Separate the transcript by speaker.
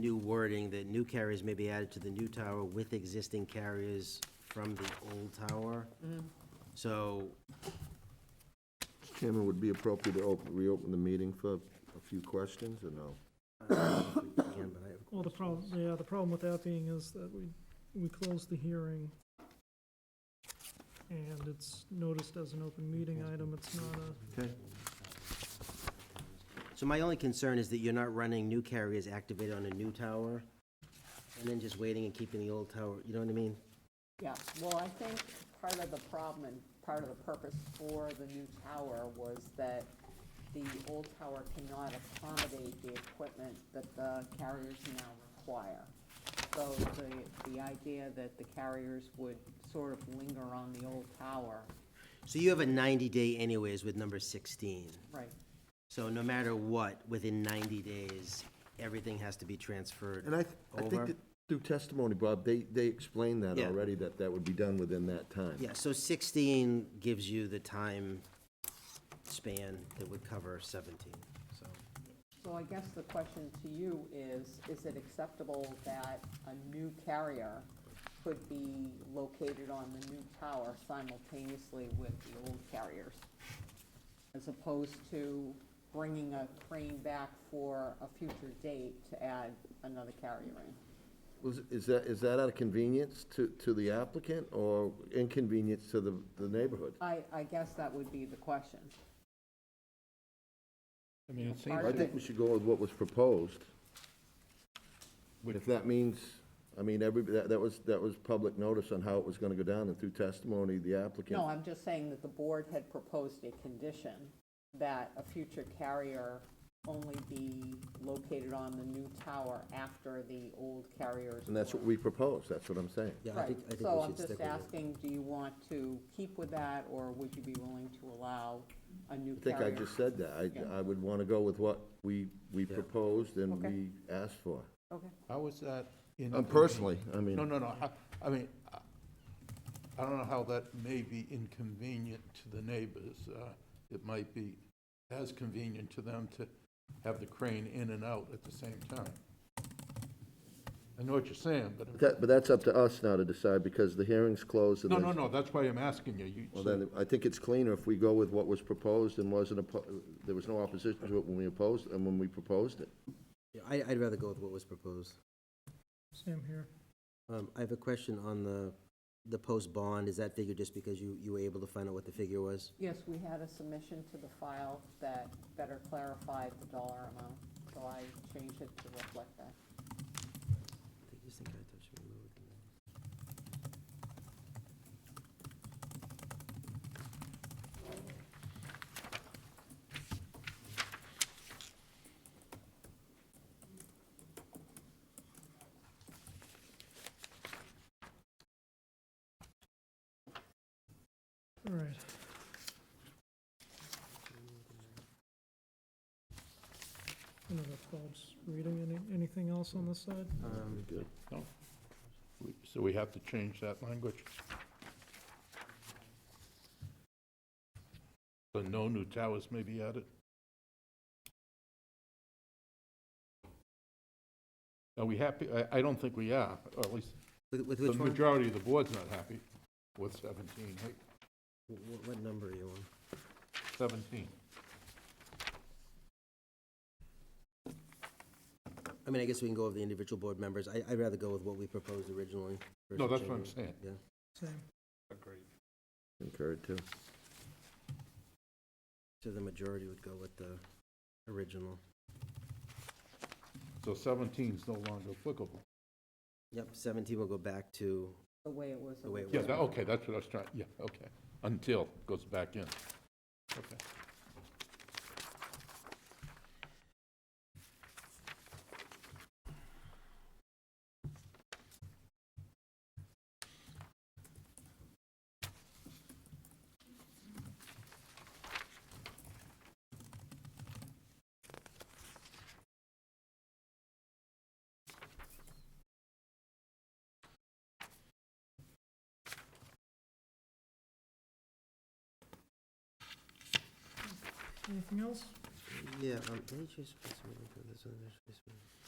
Speaker 1: new wording that new carriers may be added to the new tower with existing carriers from the old tower. So,
Speaker 2: Chairman, would it be appropriate to open, reopen the meeting for a few questions, or no?
Speaker 1: uh, again, but I have
Speaker 3: Well, the problem, yeah, the problem with that being is that we, we closed the hearing, and it's noticed as an open meeting item, it's not a,
Speaker 2: Okay.
Speaker 1: So my only concern is that you're not running new carriers activated on a new tower, and then just waiting and keeping the old tower, you know what I mean?
Speaker 4: Yeah, well, I think part of the problem and part of the purpose for the new tower was that the old tower cannot accommodate the equipment that the carriers now require. So the, the idea that the carriers would sort of linger on the old tower,
Speaker 1: So you have a 90-day anyways with number 16.
Speaker 4: right,
Speaker 1: So no matter what, within 90 days, everything has to be transferred
Speaker 2: And I, I think
Speaker 1: over.
Speaker 2: that through testimony, Bob, they, they explained that
Speaker 1: Yeah.
Speaker 2: already, that that would be done within that time.
Speaker 1: Yeah, so 16 gives you the time span that would cover 17, so.
Speaker 4: So I guess the question to you is, is it acceptable that a new carrier could be located on the new tower simultaneously with the old carriers? As opposed to bringing a crane back for a future date to add another carrier in?
Speaker 2: Was, is that, is that out of convenience to, to the applicant, or inconvenience to the, the neighborhood?
Speaker 4: I, I guess that would be the question.
Speaker 5: I mean, it seems,
Speaker 4: Part
Speaker 2: I
Speaker 4: of
Speaker 2: think
Speaker 4: it,
Speaker 2: we should go with what was proposed. If that means, I mean, every, that, that was, that was public notice on how it was gonna go down, and through testimony, the applicant.
Speaker 4: no, I'm just saying that the board had proposed a condition that a future carrier only be located on the new tower after the old carriers.
Speaker 2: And that's what
Speaker 4: were-
Speaker 2: we proposed, that's what I'm saying.
Speaker 1: Yeah, I
Speaker 4: Right,
Speaker 1: think, I think
Speaker 4: so
Speaker 1: we
Speaker 4: I'm
Speaker 1: should stick with
Speaker 4: just
Speaker 1: it.
Speaker 4: asking, do you want to keep with that, or would you be willing to allow a new
Speaker 2: I think I
Speaker 4: carrier?
Speaker 2: just said that,
Speaker 4: Yeah.
Speaker 2: I, I would wanna go with what we, we
Speaker 1: Yeah.
Speaker 2: proposed and
Speaker 4: Okay.
Speaker 2: we asked for.
Speaker 4: Okay,
Speaker 5: how was that?
Speaker 2: Um, Personally, I
Speaker 5: No,
Speaker 2: mean,
Speaker 5: no, no, how- I mean, I- I don't know how that may be inconvenient to the neighbors. Uh, It might be as convenient to them to have the crane in and out at the same time. I know what you're saying, but,
Speaker 2: that, but that's up to us now to decide, because the hearing's closed and
Speaker 5: no,
Speaker 2: then.
Speaker 5: no, no, that's why I'm asking you. You-
Speaker 2: Well, then, I think it's cleaner if we go with what was proposed and wasn't, oppo- there was no opposition to it when we opposed, and when we proposed it.
Speaker 1: Yeah, I, I'd rather go with what was proposed.
Speaker 3: same here.
Speaker 1: Um, I have a question on the, the post-bond, is that figure just because you, you were able to find out what the figure was?
Speaker 4: yes, we had a submission to the file that better clarified the dollar amount, so I changed it to reflect that.
Speaker 1: I just think I touched it a little bit.
Speaker 3: All right, I don't know if Bob's reading any, anything else on this side?
Speaker 1: Um,
Speaker 2: Good.
Speaker 5: So we have to change that language? So no new towers may be added? Are we happy? I, I don't think we are, or at least
Speaker 1: With, with
Speaker 5: the
Speaker 1: which one?
Speaker 5: majority of the board's not happy with 17, right?
Speaker 1: What, what number are you on?
Speaker 5: 17.
Speaker 1: I mean, I guess we can go over the individual board members. I, I'd rather go with what we proposed originally.
Speaker 5: No,
Speaker 1: versus
Speaker 5: that's what I'm
Speaker 1: changing
Speaker 5: saying.
Speaker 3: Same,
Speaker 5: Agreed.
Speaker 2: Incurred too.
Speaker 1: it. So the majority would go with the original.
Speaker 5: So 17 is no longer applicable.
Speaker 1: Yep, 17 will go back to,
Speaker 4: The way it was.
Speaker 1: The way it
Speaker 5: Yeah,
Speaker 4: originally.
Speaker 5: that, okay, that's what I was trying, yeah, okay. Until goes back in. Okay.
Speaker 3: anything else?
Speaker 1: а yeah, um, let me just put some of this on this- this one.